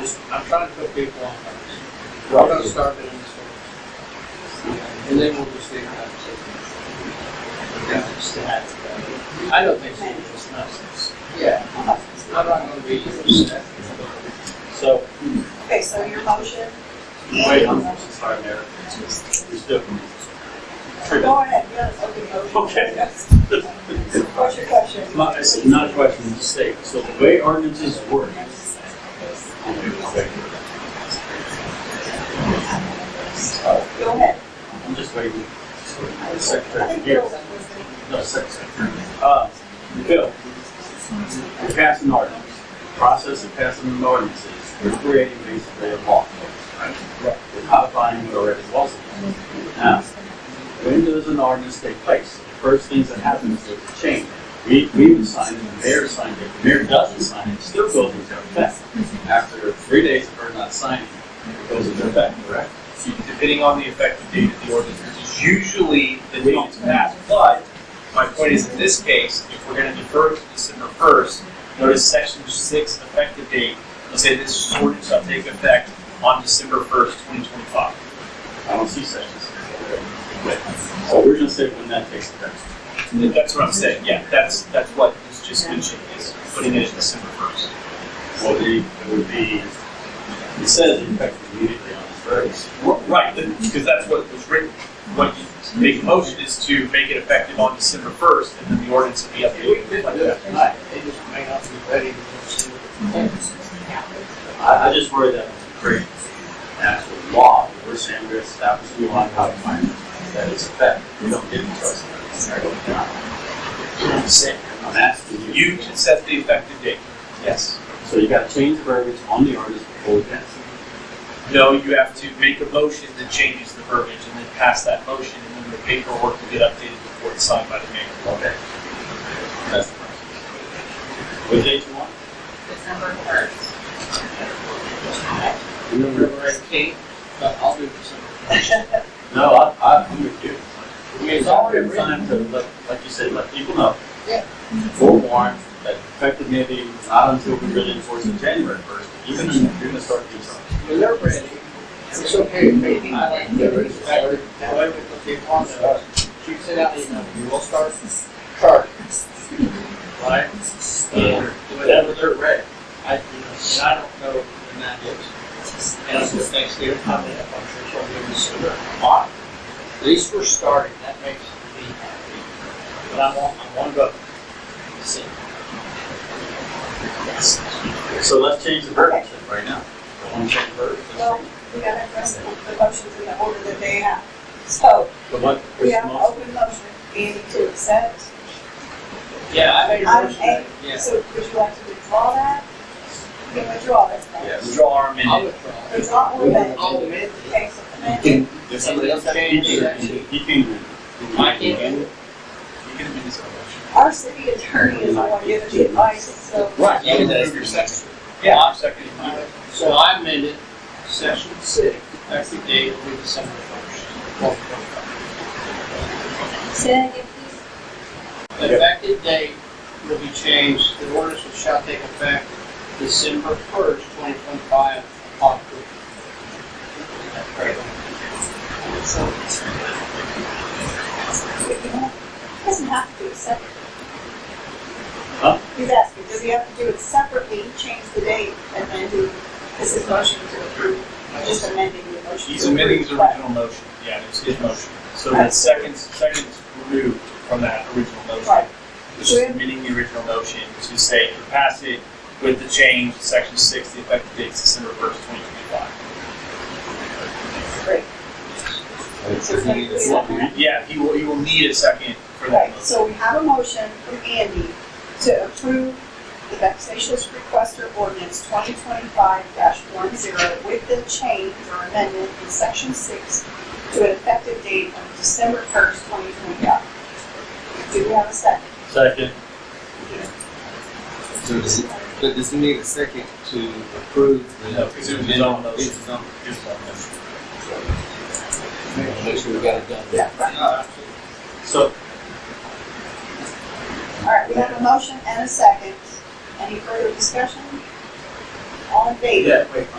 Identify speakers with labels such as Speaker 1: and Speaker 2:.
Speaker 1: just, I'm trying to put people on notice. We're gonna start doing this. first. And then we'll just leave it up to. I don't think so, it's not, yeah, I'm not gonna be upset.
Speaker 2: So,
Speaker 3: Okay, so your motion?
Speaker 2: wait, I'm sorry, Mayor. There's different.
Speaker 3: Go ahead, yes, okay.
Speaker 2: Okay.
Speaker 3: What's your question?
Speaker 2: My, it's not a question, it's a statement. So the way ordinances work,
Speaker 3: Go ahead.
Speaker 2: I'm just waiting for the
Speaker 3: I
Speaker 2: secretary to
Speaker 3: think
Speaker 2: get,
Speaker 3: Bill was gonna-
Speaker 2: no, secretary. Uh, Bill, passing ordinance, process of passing an ordinance is we're creating basically a law. right? We're codifying what already was. Now, when does an ordinance take place? The First things that happen is there's a change. We, we would sign it, the mayor signed it, the mayor doesn't sign it, it still goes into effect. After three days of her not signing, it goes into effect, correct?
Speaker 4: depending on the effective date of the ordinance, which is usually the date it's passed. But my point is, in this case, if we're going to defer to December first, notice section six effective date will say this ordinance shall take effect on December first, twenty twenty-five.
Speaker 2: I don't see sections. So we're gonna say when that takes effect.
Speaker 4: That's what I'm saying. Yeah, that's that's what was just mentioned is putting it at December first.
Speaker 2: Well, the, it would be, it says effective immediately on the first.
Speaker 4: Right, because that's what was written. What you make a motion is to make it effective on December first, and then the ordinance will be
Speaker 1: If we
Speaker 4: updated.
Speaker 1: could do it tonight, they just may not be ready to do it.
Speaker 2: I, I just worry that it's great actual law, we're saying we're establishing a law how to find that is effective. We don't get into us. I'm saying, I'm asking you.
Speaker 4: You can set the effective date. Yes.
Speaker 2: So you gotta change the verbiage on the ordinance before we pass it.
Speaker 4: No, you have to make a motion that changes the verbiage and then pass that motion and then the paperwork will get updated before it's signed by the mayor.
Speaker 2: Okay. That's the process. What date you want?
Speaker 1: Remember, I can't, but I'll do it some.
Speaker 2: No, I, I, I'm with you. I mean, it's already
Speaker 1: written.
Speaker 2: time to, let- like you said, let people know.
Speaker 1: Yeah.
Speaker 2: Forewarn that effective maybe not until we really enforce it January first, even if you're gonna start doing something.
Speaker 1: When they're ready, it's okay, maybe I like to do it, however, however they want it, uh, you send out the email, you will start charging. Right?
Speaker 2: Yeah.
Speaker 1: Whatever they're ready, I, you know, and I don't know when that is. And it's just next year, I'm gonna have, I'm sure she'll give us a lot. At least we're starting, that makes me happy. But I want, I want to go. See.
Speaker 2: So let's change the verbiage right now. I wanna change the verbiage.
Speaker 3: Well, we gotta address the the motions in the order that they have. So,
Speaker 2: But what,
Speaker 3: we
Speaker 2: which
Speaker 3: have an
Speaker 2: most,
Speaker 3: open motion, Andy to accept.
Speaker 1: Yeah, I made a
Speaker 3: I'm
Speaker 1: motion,
Speaker 3: A.
Speaker 1: yeah.
Speaker 3: So would you like to withdraw that? You can withdraw that. right?
Speaker 2: yes.
Speaker 4: Withdraw our
Speaker 1: I'll
Speaker 4: amendment.
Speaker 1: withdraw.
Speaker 3: Withdraw or amend?
Speaker 1: I'll amend it.
Speaker 3: Okay, so amend.
Speaker 1: Can-
Speaker 2: If
Speaker 1: somebody else have
Speaker 2: He can,
Speaker 1: any-
Speaker 2: he can.
Speaker 1: I can't.
Speaker 4: You can amend this motion.
Speaker 3: Our city attorney is the one giving the advice, so.
Speaker 2: Right.
Speaker 1: You can do
Speaker 4: your section. Yeah, I'm seconding mine.
Speaker 1: So I amended section six, effective date will be December first.
Speaker 5: Say that again, please.
Speaker 1: The effective date will be changed, the ordinance which shall take effect December first, twenty twenty-five, upon approval.
Speaker 3: He doesn't have to do it separately.
Speaker 2: Huh?
Speaker 3: He's asking, does he have to do it separately, change the date, and then do, this is motion to approve, or just amending the motion?
Speaker 4: He's
Speaker 3: to
Speaker 4: amending his
Speaker 3: approve? Right.
Speaker 4: original motion. Yeah, it's his motion. So that second, second is removed from that original motion.
Speaker 3: Right.
Speaker 4: Which is amending the original motion to say to pass it with the change, section six, the effective date is December first, twenty twenty-five.
Speaker 3: Great. So it's gonna be that.
Speaker 4: Yeah, he will, he will need a second for that
Speaker 3: Right,
Speaker 4: motion.
Speaker 3: so we have a motion from Andy to approve the vexatious requester ordinance twenty twenty-five one zero with the change or amendment in section six to an effective date of December first, twenty twenty-five. Do we have a second?
Speaker 2: Second.
Speaker 6: So does it, but does he need a second to approve the?
Speaker 4: No, because it was his own motion.
Speaker 6: It's his own-
Speaker 4: His own motion.
Speaker 6: Make sure we got it done.
Speaker 3: Yeah, right.
Speaker 2: So,
Speaker 3: All right, we have a motion and a second. Any further discussion? All in favor?
Speaker 2: yeah, wait,